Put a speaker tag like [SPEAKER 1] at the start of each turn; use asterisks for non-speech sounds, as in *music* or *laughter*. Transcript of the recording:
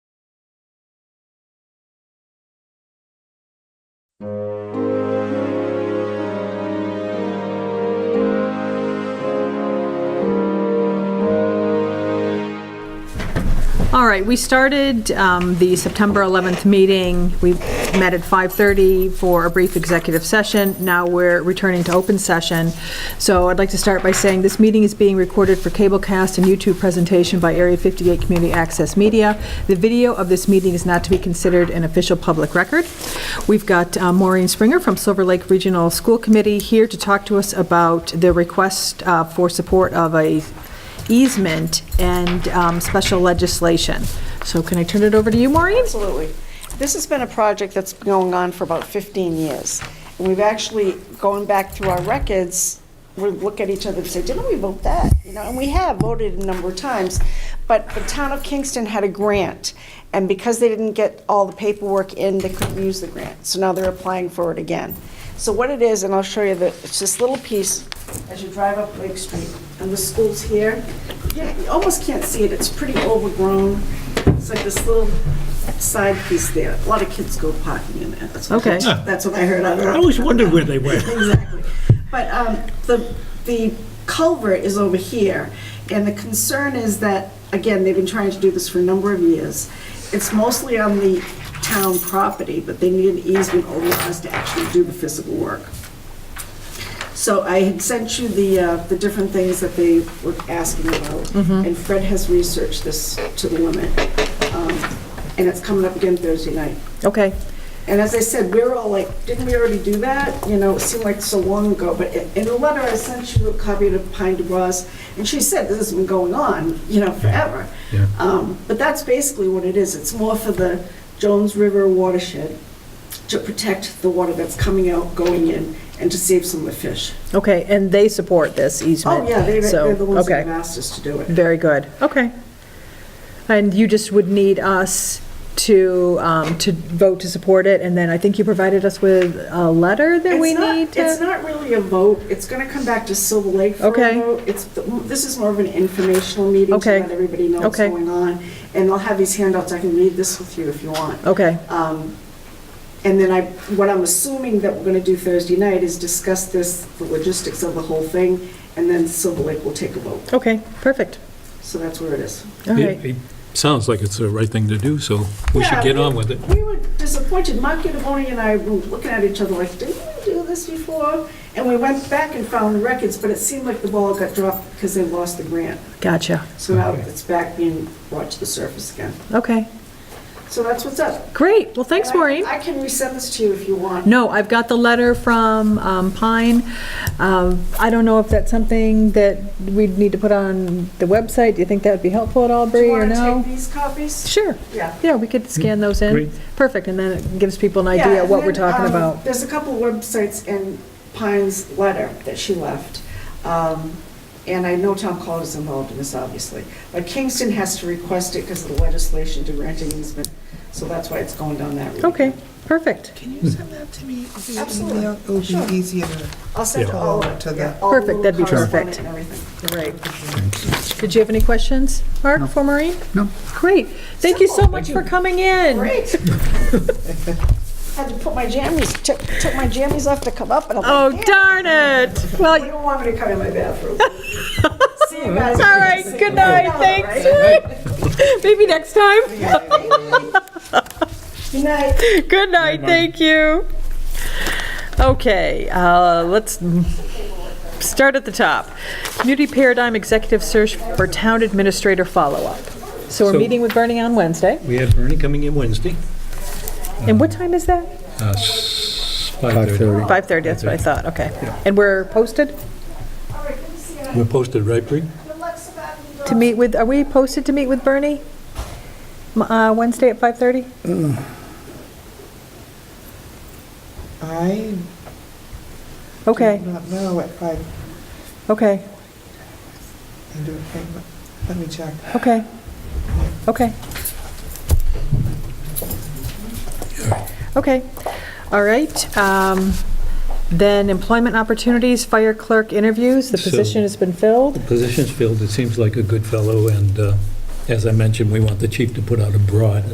[SPEAKER 1] All right, we started um, the September 11th meeting. We met at 5:30 for a brief executive session. Now we're returning to open session. So I'd like to start by saying this meeting is being recorded for cablecast and YouTube presentation by Area 58 Community Access Media. The video of this meeting is not to be considered an official public record. We've got uh, Maureen Springer from Silver Lake Regional School Committee here to talk to us about the request uh, for support of a easement and um, special legislation. So can I turn it over to you, Maureen?
[SPEAKER 2] Absolutely. This has been a project that's been going on for about 15 years. And we've actually, going back through our records, we look at each other and say, didn't we vote that? You know, and we have voted a number of times. But the town of Kingston had a grant, and because they didn't get all the paperwork in, they couldn't use the grant. So now they're applying for it again. So what it is, and I'll show you the, it's this little piece as you drive up Lake Street, and the school's here. Yeah, You almost can't see it, it's pretty overgrown. It's like this little side piece there. A lot of kids go parking in there. That's what-
[SPEAKER 1] Okay.
[SPEAKER 2] That's what I heard on the
[SPEAKER 3] I always wondered where they went.
[SPEAKER 2] *laughs* Exactly. But um, the, the culvert is over here, and the concern is that, again, they've been trying to do this for a number of years. It's mostly on the town property, but they need an easement over us to actually do the physical work. So I had sent you the, uh, the different things that they were asking about, and Fred has researched this to the limit. Um, And it's coming up again Thursday night.
[SPEAKER 1] Okay,
[SPEAKER 2] And as I said, we were all like, didn't we already do that? You know, it seemed like so long ago, but in in the letter I sent you a copy to Pine DeBras, and she said this has been going on, you know, forever. Um, But that's basically what it is. It's more for the Jones River watershed to protect the water that's coming out, going in, and to save some of the fish.
[SPEAKER 1] okay, and they support this easement?
[SPEAKER 2] Oh, yeah, they-
[SPEAKER 1] so,
[SPEAKER 2] they're the ones that have
[SPEAKER 1] Okay,
[SPEAKER 2] asked us to do it.
[SPEAKER 1] very good, okay. And you just would need us to, um, to vote to support it, and then I think you provided us with a letter that we
[SPEAKER 2] It's not-
[SPEAKER 1] need
[SPEAKER 2] It's
[SPEAKER 1] to?
[SPEAKER 2] not really a vote. It's going to come back to Silver Lake for a
[SPEAKER 1] Okay.
[SPEAKER 2] vote. It's, this is more of an informational meeting to
[SPEAKER 1] Okay.
[SPEAKER 2] let everybody know what's
[SPEAKER 1] Okay.
[SPEAKER 2] going on. And I'll have these handouts. I can read this with you if you want.
[SPEAKER 1] Okay,
[SPEAKER 2] Um, And then I, what I'm assuming that we're going to do Thursday night is discuss this, the logistics of the whole thing, and then Silver Lake will take a vote.
[SPEAKER 1] okay, perfect,
[SPEAKER 2] So that's where it is.
[SPEAKER 1] all
[SPEAKER 3] It-
[SPEAKER 1] right.
[SPEAKER 3] it Sounds like it's the right thing to do, so we should
[SPEAKER 2] Yeah,
[SPEAKER 3] get on with it.
[SPEAKER 2] We were disappointed, Mark Giovanni and I were looking at each other like, didn't we do this before? And we went back and found the records, but it seemed like the ball got dropped because they lost the grant.
[SPEAKER 1] Gotcha,
[SPEAKER 2] So now it's back being brought to the surface again.
[SPEAKER 1] okay,
[SPEAKER 2] So that's what's up.
[SPEAKER 1] great, well, thanks,
[SPEAKER 2] And I-
[SPEAKER 1] Maureen.
[SPEAKER 2] I can resend this to you if you want.
[SPEAKER 1] No, I've got the letter from um, Pine. Um, I don't know if that's something that we'd need to put on the website. Do you think that would be helpful at all,
[SPEAKER 2] Do
[SPEAKER 1] Bree,
[SPEAKER 2] you
[SPEAKER 1] or
[SPEAKER 2] want to
[SPEAKER 1] no?
[SPEAKER 2] take these copies?
[SPEAKER 1] Sure,
[SPEAKER 2] Yeah.
[SPEAKER 1] yeah, we could scan those in.
[SPEAKER 3] Great.
[SPEAKER 1] Perfect, and then it gives people an
[SPEAKER 2] Yeah,
[SPEAKER 1] idea
[SPEAKER 2] and
[SPEAKER 1] what we're
[SPEAKER 2] then,
[SPEAKER 1] talking
[SPEAKER 2] um,
[SPEAKER 1] about.
[SPEAKER 2] There's a couple websites in Pine's letter that she left. Um, And I know Tom College is involved in this, obviously. But Kingston has to request it because of the legislation to grant an easement. So that's why it's going down that route.
[SPEAKER 1] Okay, perfect,
[SPEAKER 4] Can you send that to me via
[SPEAKER 2] Absolutely.
[SPEAKER 4] email? It would
[SPEAKER 2] Sure.
[SPEAKER 4] be easier to,
[SPEAKER 2] I'll send
[SPEAKER 4] Yeah.
[SPEAKER 2] all,
[SPEAKER 4] Oh, to
[SPEAKER 2] yeah,
[SPEAKER 4] the-
[SPEAKER 2] all
[SPEAKER 1] Perfect,
[SPEAKER 2] little
[SPEAKER 1] that'd be perfect.
[SPEAKER 2] correspondence and everything.
[SPEAKER 1] great. Did you have any questions, Mark, for Maureen?
[SPEAKER 5] No.
[SPEAKER 1] Great, thank you so
[SPEAKER 2] Simple.
[SPEAKER 1] much for coming in.
[SPEAKER 2] Great.
[SPEAKER 4] *laughs*
[SPEAKER 2] Had to put my jammies, took, took my jammies off to come up and I'm like,
[SPEAKER 1] Oh,
[SPEAKER 2] "Damn,
[SPEAKER 1] darn it.
[SPEAKER 2] You
[SPEAKER 1] Well,
[SPEAKER 2] don't want me to come in
[SPEAKER 1] *laughs*
[SPEAKER 2] my bathroom. See you guys.
[SPEAKER 1] all right, good night, thanks. *laughs* Maybe next time.
[SPEAKER 2] Good night.
[SPEAKER 1] *laughs* Good night, thank you. Okay, uh, let's start at the top. Community Paradigm Executive Search for Town Administrator Follow-Up. So we're
[SPEAKER 3] So-
[SPEAKER 1] meeting with Bernie on Wednesday,
[SPEAKER 3] We have Bernie coming in Wednesday,
[SPEAKER 1] and what time is that?
[SPEAKER 3] uh, s- 5:30.
[SPEAKER 1] 5:30, that's what I thought, okay. And we're posted
[SPEAKER 3] We're posted, right, Bree?
[SPEAKER 1] to meet with, are we posted to meet with Bernie? M- uh, Wednesday at 5:30?
[SPEAKER 4] I
[SPEAKER 1] Okay,
[SPEAKER 4] do not know what I,
[SPEAKER 1] okay,
[SPEAKER 4] I do, okay, but let me check.
[SPEAKER 1] okay, okay. Okay, all right. um, Then employment opportunities, fire clerk interviews, the
[SPEAKER 3] So-
[SPEAKER 1] position has been filled.
[SPEAKER 3] Positions filled, it seems like a good fellow, and uh, as I mentioned, we want the chief to put out a broad